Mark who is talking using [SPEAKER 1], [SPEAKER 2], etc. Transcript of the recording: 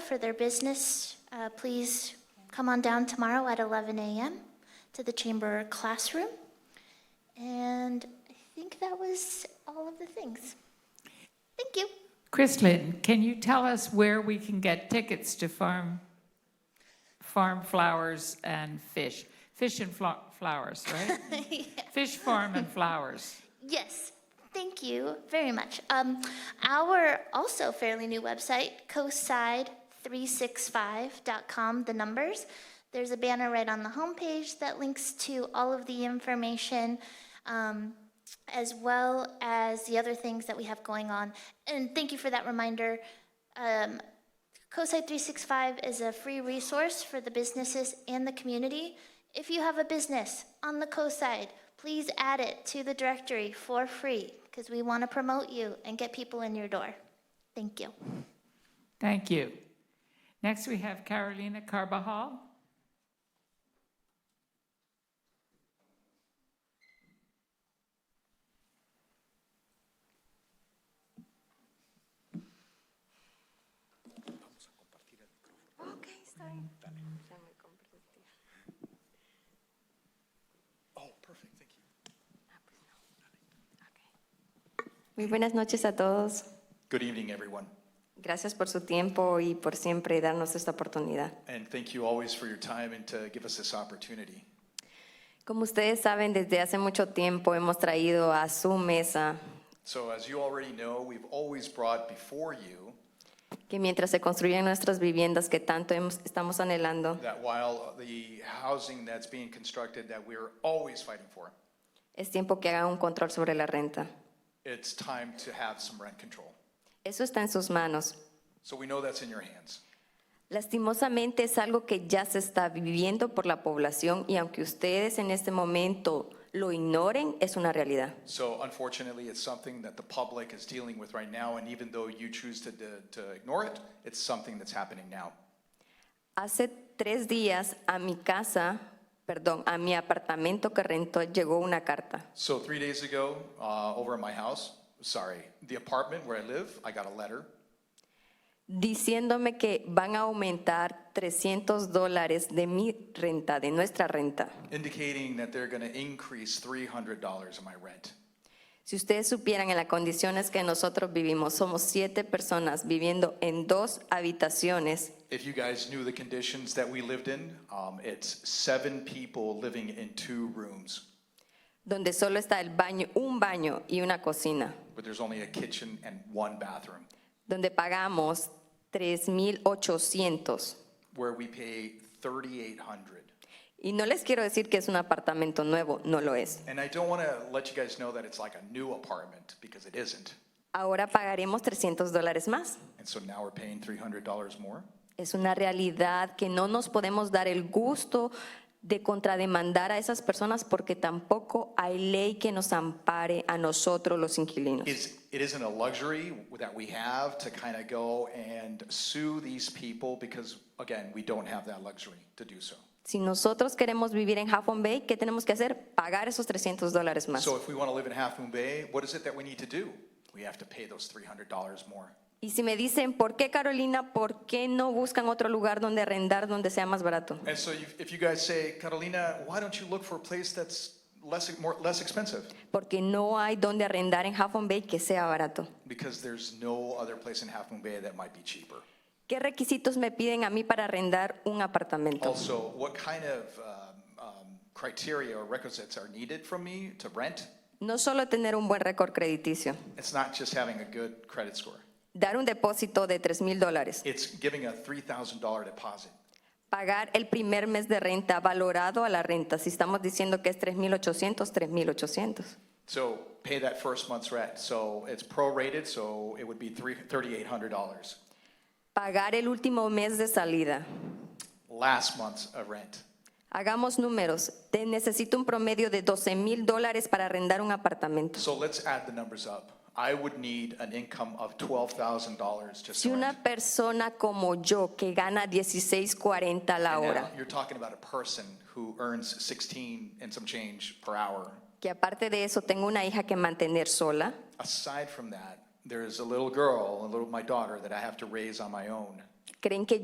[SPEAKER 1] for their business, uh, please come on down tomorrow at 11 a.m. to the chamber classroom. And I think that was all of the things. Thank you.
[SPEAKER 2] Kristlyn, can you tell us where we can get tickets to farm, farm flowers and fish? Fish and flo- flowers, right? Fish farm and flowers.
[SPEAKER 1] Yes, thank you very much. Um, our also fairly new website, coastside365.com, the numbers. There's a banner right on the homepage that links to all of the information, um, as well as the other things that we have going on. And thank you for that reminder. Um, COSI 365 is a free resource for the businesses and the community. If you have a business on the coastside, please add it to the directory for free because we want to promote you and get people in your door. Thank you.
[SPEAKER 2] Thank you. Next, we have Carolina Carbajal.
[SPEAKER 3] Ok, está bien. Ya me comprometí. Ah, pues no. Ok. Muy buenas noches a todos.
[SPEAKER 4] Good evening, everyone,
[SPEAKER 3] Gracias por su tiempo y por siempre darnos esta oportunidad.
[SPEAKER 4] and thank you always for your time and to give us this opportunity.
[SPEAKER 3] Como ustedes saben, desde hace mucho tiempo hemos traído a su mesa
[SPEAKER 4] So, as you already know, we've always brought before you
[SPEAKER 3] que mientras se construyen nuestras viviendas que tanto hemos- estamos anhelando,
[SPEAKER 4] that while the housing that's being constructed that we're always fighting for,
[SPEAKER 3] es tiempo que haga un control sobre la renta.
[SPEAKER 4] it's time to have some rent control.
[SPEAKER 3] Eso está en sus manos.
[SPEAKER 4] So, we know that's in your hands.
[SPEAKER 3] Lastimosamente es algo que ya se está viviendo por la población y aunque ustedes en este momento lo ignoren, es una realidad.
[SPEAKER 4] So, unfortunately, it's something that the public is dealing with right now, and even though you choose to, to ignore it, it's something that's happening now.
[SPEAKER 3] Hace tres días a mi casa, perdón, a mi apartamento que rentó llegó una carta.
[SPEAKER 4] So, three days ago, uh, over at my house, sorry, the apartment where I live, I got a letter
[SPEAKER 3] diciéndome que van a aumentar 300 dólares de mi renta, de nuestra renta.
[SPEAKER 4] indicating that they're going to increase $300 in my rent.
[SPEAKER 3] Si ustedes supieran en las condiciones que nosotros vivimos, somos siete personas viviendo en dos habitaciones
[SPEAKER 4] If you guys knew the conditions that we lived in, um, it's seven people living in two rooms,
[SPEAKER 3] donde solo está el baño, un baño y una cocina,
[SPEAKER 4] but there's only a kitchen and one bathroom,
[SPEAKER 3] donde pagamos 3.800.
[SPEAKER 4] where we pay 3,800.
[SPEAKER 3] Y no les quiero decir que es un apartamento nuevo, no lo es.
[SPEAKER 4] And I don't want to let you guys know that it's like a new apartment because it isn't.
[SPEAKER 3] Ahora pagaremos 300 dólares más.
[SPEAKER 4] And so now we're paying $300 more.
[SPEAKER 3] Es una realidad que no nos podemos dar el gusto de contrademandar a esas personas porque tampoco hay ley que nos ampare a nosotros los inquilinos.
[SPEAKER 4] It's, it isn't a luxury that we have to kind of go and sue these people because, again, we don't have that luxury to do so.
[SPEAKER 3] Si nosotros queremos vivir en Huffington Bay, ¿qué tenemos que hacer? Pagar esos 300 dólares más.
[SPEAKER 4] So if we want to live in Half Moon Bay, what is it that we need to do? We have to pay those $300 more.
[SPEAKER 3] Y si me dicen, ¿por qué Carolina? ¿Por qué no buscan otro lugar donde arrendar donde sea más barato?
[SPEAKER 4] And so you- if you guys say, Carolina, why don't you look for a place that's less, more, less expensive?
[SPEAKER 3] Porque no hay donde arrendar en Huffington Bay que sea barato.
[SPEAKER 4] Because there's no other place in Half Moon Bay that might be cheaper.
[SPEAKER 3] ¿Qué requisitos me piden a mí para arrendar un apartamento?
[SPEAKER 4] Also, what kind of um, um, criteria or requisites are needed from me to rent?
[SPEAKER 3] No solo tener un buen récord crediticio,
[SPEAKER 4] It's not just having a good credit score.
[SPEAKER 3] dar un depósito de 3 mil dólares,
[SPEAKER 4] It's giving a $3,000 deposit.
[SPEAKER 3] pagar el primer mes de renta valorado a la renta, si estamos diciendo que es 3.800, 3.800.
[SPEAKER 4] So pay that first month's rent. So it's prorated, so it would be three- $3,800.
[SPEAKER 3] Pagar el último mes de salida.
[SPEAKER 4] last month's uh, rent.
[SPEAKER 3] Hagamos números, te necesito un promedio de 12 mil dólares para arrendar un apartamento.
[SPEAKER 4] So let's add the numbers up. I would need an income of $12,000 just
[SPEAKER 3] Si
[SPEAKER 4] to rent.
[SPEAKER 3] una persona como yo que gana 16.40 la
[SPEAKER 4] And now
[SPEAKER 3] hora,
[SPEAKER 4] You're talking about a person who earns 16 and some change per hour.
[SPEAKER 3] que aparte de eso tengo una hija que mantener sola,
[SPEAKER 4] Aside from that, there's a little girl, a little, my daughter, that I have to raise on my own.
[SPEAKER 3] ¿creen que